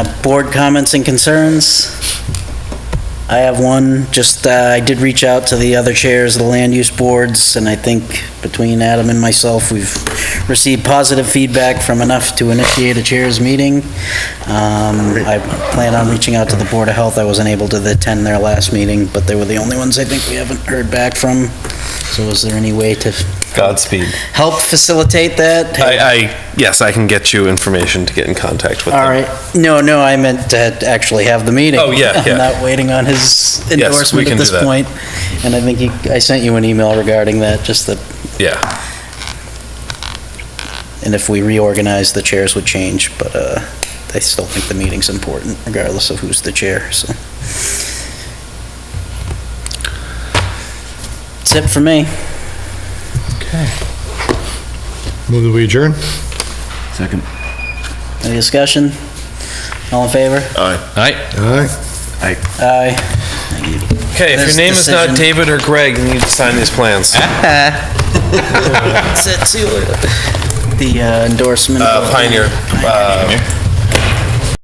Uh, Board comments and concerns? I have one, just, uh, I did reach out to the other chairs of the land use boards, and I think between Adam and myself, we've received positive feedback from enough to initiate a chairs meeting. Um, I plan on reaching out to the Board of Health, I wasn't able to attend their last meeting, but they were the only ones I think we haven't heard back from, so is there any way to Godspeed. help facilitate that? I, I, yes, I can get you information to get in contact with them. All right. No, no, I meant to actually have the meeting. Oh, yeah, yeah. I'm not waiting on his we endorsement can at do this that. point. And I think you, I sent you an email regarding that, just that, Yeah, and if we reorganize, the chairs would change, but uh, I still think the meeting's important regardless of who's the chair, so. That's it for me. Move that we adjourn? Second. Any discussion? All in favor? All right. Aye. okay, if This your name is not decision- David or Greg, you need to sign these plans. That's it, see you later. The uh, endorsement. Uh, Pioneer, uh,